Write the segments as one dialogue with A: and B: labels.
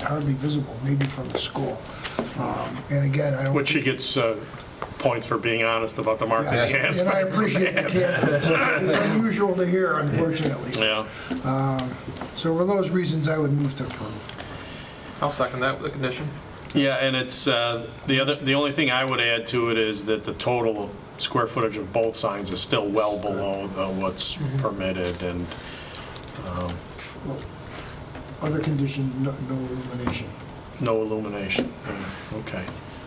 A: hardly visible, maybe from the school. Um, And again, I don't.
B: Which she gets uh, points for being honest about the market she
A: Yes,
B: has.
A: And I appreciate the candor. It's unusual to hear, unfortunately.
B: Yeah.
A: So for those reasons, I would move to approve.
C: I'll second that with a condition.
B: Yeah, and it's, uh, the other, the only thing I would add to it is that the total square footage of both signs is still well below the- what's permitted, and
A: Other condition, no no illumination.
B: no illumination. Okay.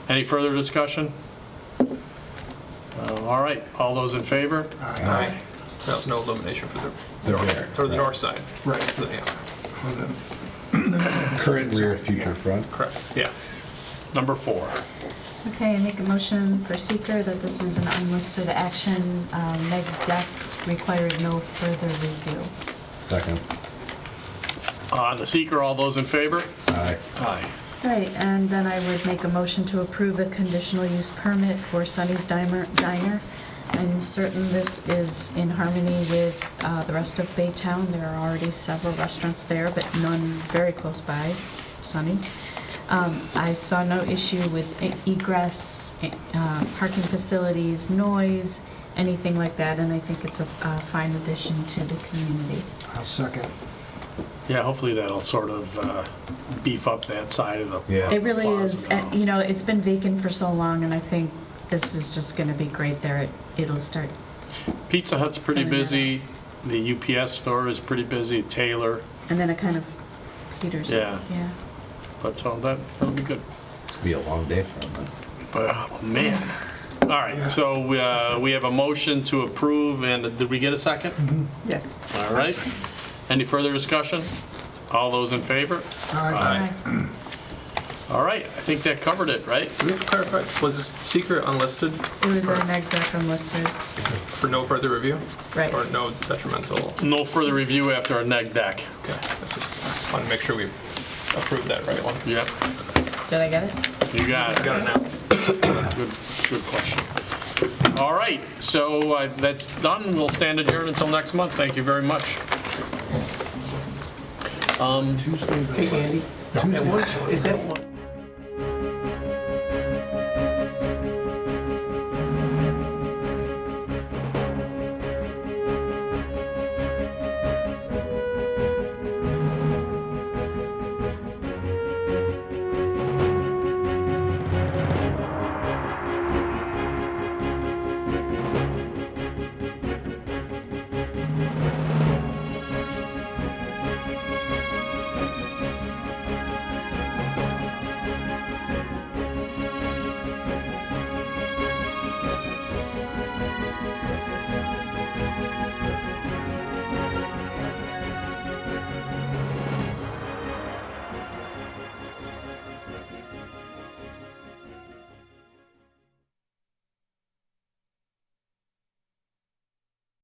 B: Any further discussion? Uh, All right, all those in favor?
A: Aye.
C: That was no illumination for the,
D: The rear.
C: for the north side.
A: Right.
C: Yeah,
A: for the-
D: Current rear, future front.
C: correct, yeah.
B: Number four.
E: Okay, I make a motion for seeker that this is an unlisted action, um, neg deck required no further review.
D: Second.
B: Uh, On the seeker, all those in favor?
D: Aye.
B: Aye.
E: Right, and then I would make a motion to approve a conditional use permit for Sunny's Diner. Diner. I'm certain this is in harmony with uh, the rest of Baytown. There are already several restaurants there, but none very close by, Sunny's. Um, I saw no issue with e- egress, e- uh, parking facilities, noise, anything like that, and I think it's a uh, fine addition to the community.
A: I'll second.
B: Yeah, hopefully that'll sort of uh, beef up that side of the.
D: Yeah.
E: It really is,
B: plaza.
E: and, you know, it's been vacant for so long, and I think this is just gonna be great there. It- It'll start,
B: Pizza Hut's pretty
E: Coming
B: busy, the UPS store is pretty busy, Taylor,
E: and then it kind of peters
B: Yeah.
E: out. Yeah.
B: but so that, that'll be good.
D: It's gonna be a long day for him.
B: Oh, man. All right, so uh, we have a motion to approve, and did we get a second?
F: Yes.
B: All right. Any further discussion? All those in favor?
A: Aye.
E: Aye.
B: All right, I think that covered it, right?
C: Can you clarify, was secret unlisted
E: It was a neg deck unlisted,
C: for no further review?
E: right.
C: Or no detrimental?
B: No further review after a neg deck.
C: Okay, that's just- wanted to make sure we approved that right one.
B: Yep,
E: Did I get it?
B: you got it.
C: Got it now.
B: Good, good question. All right, so uh, that's done. We'll stand adjourned until next month. Thank you very much.
A: Tuesday, the
F: Hey, Andy, at what, is that one?